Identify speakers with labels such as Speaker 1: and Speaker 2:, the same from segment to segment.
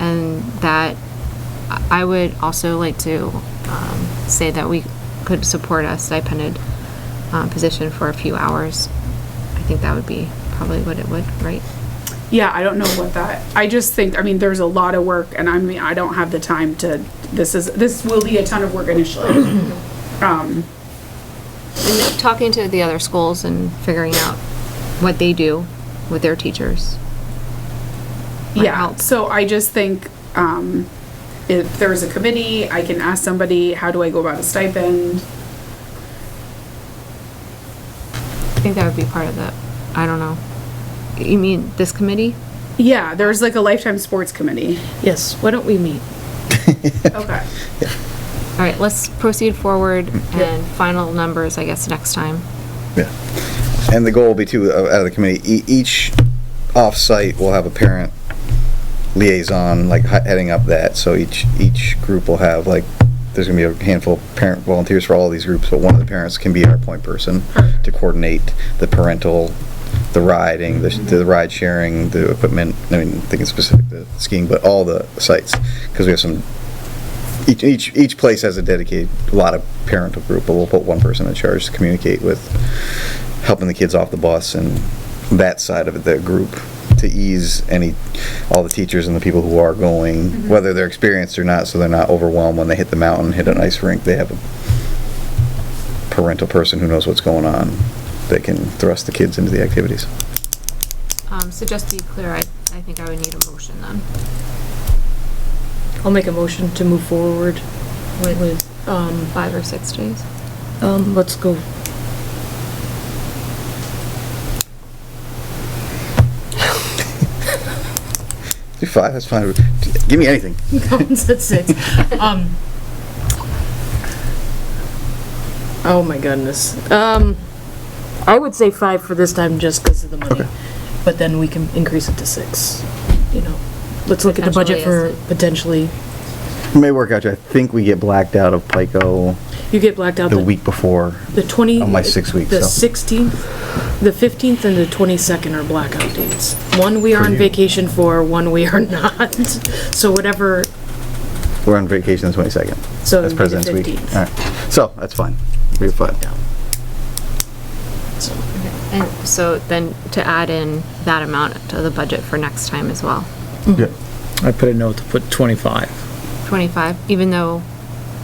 Speaker 1: and that I would also like to um, say that we could support a stipended uh, position for a few hours. I think that would be probably what it would, right?
Speaker 2: Yeah, I don't know what that, I just think, I mean, there's a lot of work and I mean, I don't have the time to, this is, this will be a ton of work initially. Um,
Speaker 1: And talking to the other schools and figuring out what they do with their teachers. Might
Speaker 2: yeah,
Speaker 1: help.
Speaker 2: so I just think, um, if there's a committee, I can ask somebody, how do I go about a stipend?
Speaker 1: I think that would be part of the, I don't know. You mean this committee?
Speaker 2: Yeah, there's like a lifetime sports committee.
Speaker 3: Yes, why don't we meet?
Speaker 2: Okay.
Speaker 1: All right, let's proceed forward and final numbers, I guess, next time.
Speaker 4: Yeah. And the goal will be too, uh, out of the committee, e- each off-site will have a parent liaison, like he- heading up that, so each, each group will have, like, there's gonna be a handful of parent volunteers for all these groups, but one of the parents can be our point person to coordinate the parental, the riding, the, the ride sharing, the equipment, I mean, I'm thinking specific to skiing, but all the sites, because we have some, each, each, each place has a dedicated, a lot of parental group, but we'll put one person in charge to communicate with helping the kids off the bus and that side of the group to ease any, all the teachers and the people who are going, whether they're experienced or not, so they're not overwhelmed when they hit the mountain, hit an ice rink, they have a parental person who knows what's going on that can thrust the kids into the activities.
Speaker 1: Um, so just to be clear, I, I think I would need a motion then.
Speaker 3: I'll make a motion to move forward with, um,
Speaker 1: Five or six days?
Speaker 3: um, let's go.
Speaker 4: Do five, that's fine. Give me anything.
Speaker 3: Collins at six. Um. Oh my goodness. Um, I would say five for this time just because of the money.
Speaker 4: Okay.
Speaker 3: But then we can increase it to six, you know. Let's look at the budget
Speaker 1: Potentially,
Speaker 3: for
Speaker 1: yes.
Speaker 3: potentially,
Speaker 4: It May work out, I think we get blacked out of Pico
Speaker 3: you get blacked out.
Speaker 4: the week before.
Speaker 3: The 20.
Speaker 4: On my six weeks,
Speaker 3: The
Speaker 4: so.
Speaker 3: 16th, the 15th and the 22nd are blackout dates. One we are on vacation for, one we are not. So whatever,
Speaker 4: We're on vacation the twenty-second.
Speaker 3: So it
Speaker 4: That's
Speaker 3: would be the
Speaker 4: President's Week.
Speaker 3: 15th.
Speaker 4: All right, so, that's fine. We have five.
Speaker 3: no. So,
Speaker 1: And so then to add in that amount to the budget for next time as well.
Speaker 4: Yeah.
Speaker 5: I put a note to put 25.
Speaker 1: 25, even though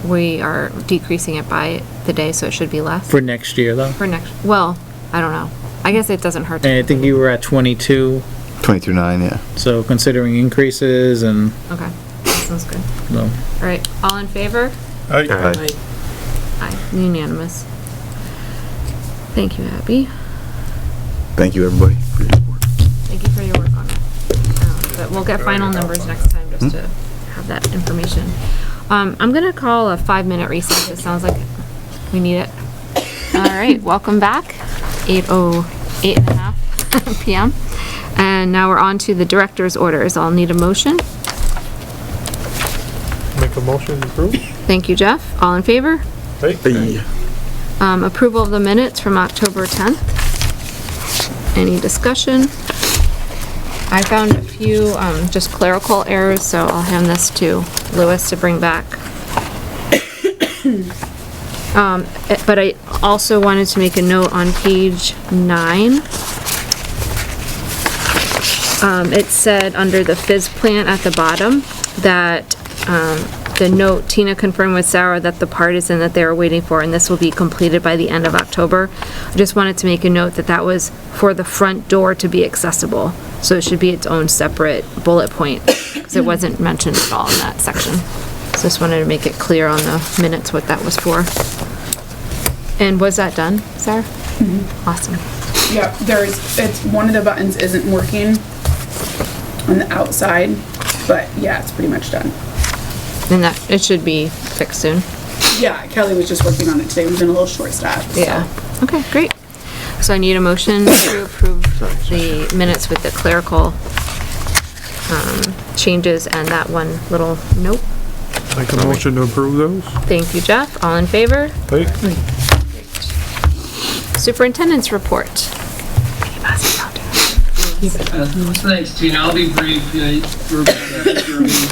Speaker 1: we are decreasing it by the day, so it should be less
Speaker 5: For next year, though.
Speaker 1: for next, well, I don't know. I guess it doesn't hurt. to-
Speaker 5: And I think you were at 22,
Speaker 4: Twenty-two nine, yeah.
Speaker 5: so considering increases and,
Speaker 1: Okay, that sounds good.
Speaker 5: you know,
Speaker 1: All right, all in favor?
Speaker 4: Aye.
Speaker 3: I-
Speaker 1: Aye, unanimous. Thank you, Abby.
Speaker 4: Thank you, everybody, for your support.
Speaker 1: Thank you for your work on it. Um, But we'll get final numbers next time, just to have that information. Um, I'm gonna call a five-minute recess, it sounds like we need it. All right, welcome back, eight oh, eight and a half PM. And now we're on to the director's orders, I'll need a motion.
Speaker 6: Make a motion to approve?
Speaker 1: Thank you, Jeff, all in favor?
Speaker 6: Hey.
Speaker 1: Um, approval of the minutes from October 10th. Any discussion? I found a few, um, just clerical errors, so I'll hand this to Lewis to bring back. Um, eh, but I also wanted to make a note on page nine. Um, it said under the fizz plant at the bottom that, um, the note Tina confirmed with Sarah that the part is in that they were waiting for, and this will be completed by the end of October. I just wanted to make a note that that was for the front door to be accessible, so it should be its own separate bullet point, because it wasn't mentioned at all in that section. So Just wanted to make it clear on the minutes what that was for. And was that done, Sarah? Awesome.
Speaker 2: Yep, there's, it's, one of the buttons isn't working on the outside, but yeah, it's pretty much done.
Speaker 1: And that, it should be fixed soon.
Speaker 2: Yeah, Kelly was just working on it today. We've been a little short staffed. so.
Speaker 1: Okay, great. So I need a motion to approve the minutes with the clerical um, changes and that one little nope.
Speaker 6: Make a motion to approve those?
Speaker 1: Thank you, Jeff. All in favor?
Speaker 6: Hey.
Speaker 1: Superintendent's report. Any passes out?
Speaker 7: Uh, Thanks, Tina. I'll be brief. Uh, We're back after a meeting.